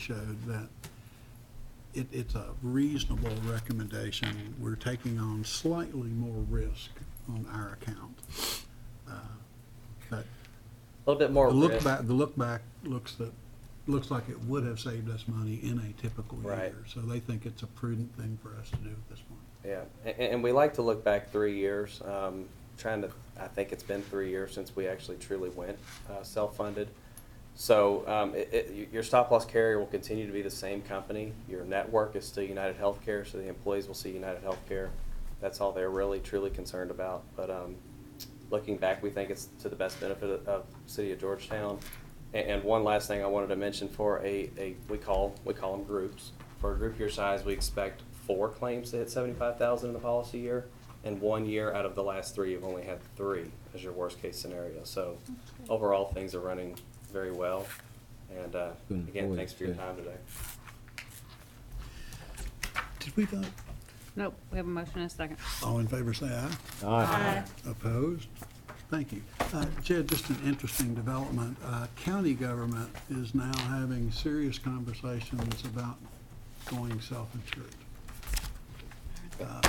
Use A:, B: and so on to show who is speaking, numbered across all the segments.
A: showed that it, it's a reasonable recommendation. We're taking on slightly more risk on our account. Uh, But
B: A little bit
A: the
B: more
A: look
B: risk.
A: back, the look back looks that, looks like it would have saved us money in a typical
B: Right.
A: year. So they think it's a prudent thing for us to do at this point.
B: Yeah, and, and we like to look back three years, um, trying to, I think it's been three years since we actually truly went, uh, self-funded. So, um, it, it, y- your stop-loss carrier will continue to be the same company. Your network is still United Healthcare, so the employees will see United Healthcare. That's all they're really truly concerned about, but, um, looking back, we think it's to the best benefit of, of city of Georgetown. A- And, one last thing I wanted to mention for a, a, we call, we call them groups. For a group your size, we expect four claims to hit seventy-five thousand in the policy year, and one year out of the last three, you've only had three as your worst-case scenario. So overall, things are running very well, and, uh,
C: Good
B: again,
C: boy,
B: thanks for your
C: yeah.
B: time today.
A: Did we vote?
D: Nope, we have a motion and a second.
A: All in favor, say aye.
C: Aye.
A: Opposed? Thank you. Uh, Jed, just an interesting development. Uh, County government is now having serious conversations about going self-insured. Uh,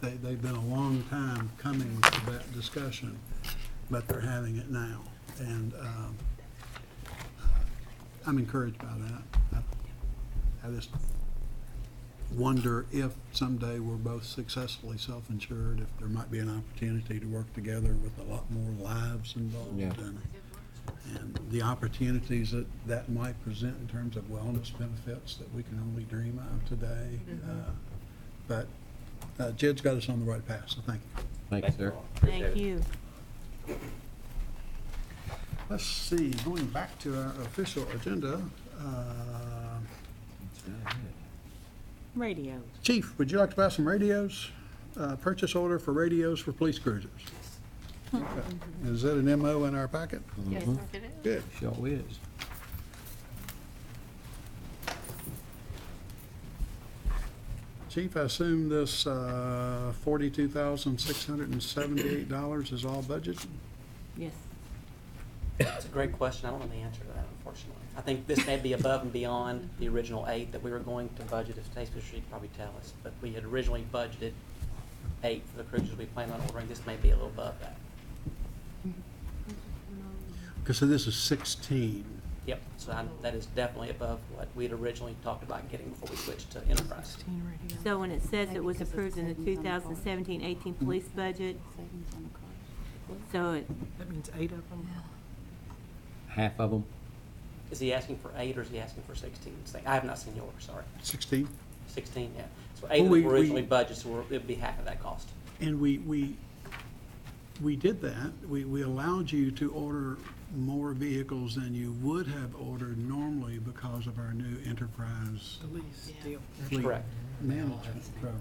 A: They, they've been a long time coming to that discussion, but they're having it now. And um, uh, I'm encouraged by that. I- I just wonder if someday we're both successfully self-insured, if there might be an opportunity to work together with a lot more lives involved.
C: Yeah.
A: and- And the opportunities that that might present in terms of wellness benefits that we can only dream of today. Uh, But uh, Jed's got us on the right path, so thank you.
C: Thank you, sir.
B: all. Appreciate
E: Thank
B: it.
E: you.
A: Let's see, going back to our official agenda, uh,
E: Radio.
A: Chief, would you like to buy some radios? Uh, Purchase order for radios for police cruisers. Okay. Is that an MO in our packet?
D: Mm-hmm. Yes, it is.
A: Good.
C: Sure is.
A: Chief, I assume this uh, $42,678 is all budget?
E: Yes.
F: That's a great question. I don't know the answer to that, unfortunately. I think this may be above and beyond the original eight that we were going to budget, as Stacy should probably tell us. But we had originally budgeted eight for the cruisers we planned on ordering. This may be a little above that.
A: Because this is 16.
F: Yep, so I- that is definitely above what we'd originally talked about getting before we switched to enterprise.
E: So when it says it was approved in the 2017-18 police budget, so it,
G: That means eight of them?
C: Half of them.
F: Is he asking for eight or is he asking for sixteen? I have not seen yours, sorry.
A: 16?
F: Sixteen, yeah. So eight
A: We- we-
F: was originally budgeted, so we're- it'd be half of that cost.
A: And we, we, we did that. We, we allowed you to order more vehicles than you would have ordered normally because of our new enterprise
G: The least deal.
A: fleet
F: Correct.
A: management program.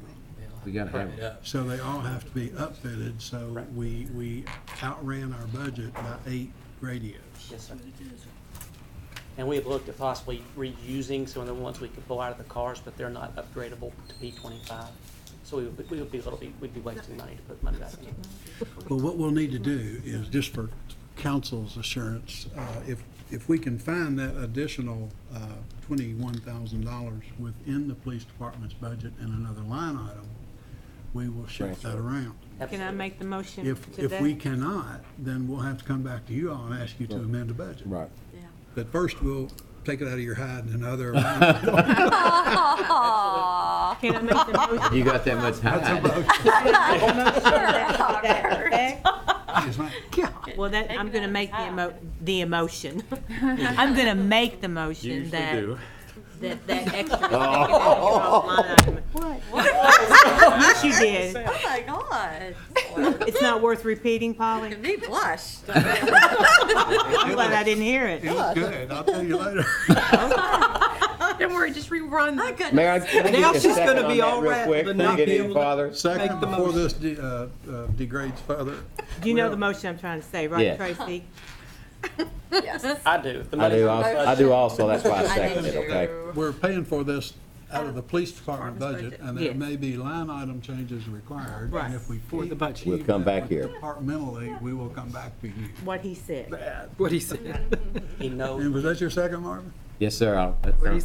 C: We gotta have them.
A: So they all have to be upfitted, so
F: Right.
A: we, we outran our budget by eight radios.
F: Yes, sir. And we have looked at possibly reusing some of the ones we could pull out of the cars, but they're not upgradable to P twenty-five. So we would, we would be a little bit, we'd be wasting money to put money back in.
A: Well, what we'll need to do is, just for council's assurance, uh, if, if we can find that additional uh, $21,000 within the police department's budget in another line item, we will shift that
C: Transfer.
A: around.
E: can I make the motion
A: If,
E: today?
A: if we cannot, then we'll have to come back to you all and ask you to
C: Right.
A: amend the budget.
C: Right.
A: But first, we'll take it out of your hide in another line item.
E: Can I make the motion
C: You got that much high.
A: Yes, ma'am.
E: Well, that, I'm gonna make the emo, the emotion. I'm gonna make the motion that. That, that extra. that
B: Oh.
E: line item. Yes, you did.
H: Oh my god.
E: It's not worth repeating, Polly.
H: Me blush.
E: I'm glad I didn't hear
A: It
E: it.
A: was good. I'll tell you later.
G: Don't worry, just rerun.
H: I couldn't.
C: Mayor, can I
G: Now
C: get a
G: she's gonna
C: second on
G: be
C: that
G: all
C: real
G: right,
C: quick?
G: but
C: Can I
G: not
C: get
G: be
C: any
G: able to-
C: farther?
A: Second, before this de- uh, uh, degrades further.
E: You know the motion I'm trying to say, right,
C: Yes.
E: Tracy?
F: I do. The
C: I do,
F: money's on the
C: also-
F: budget.
C: I do also, that's why I
H: I didn't
C: seconded it, okay?
H: do-
A: We're paying for this out of the police department budget, and there
E: Yes.
A: may be line item changes required. And
E: Right.
A: if we for the budget.
C: We'll come back here.
A: Departmentally, we will come back to you.
E: What he said.
G: What he said.
F: He knows.
A: And was that your second, Marvin?
C: Yes, sir. I'll- that
H: Where do you
C: sounds-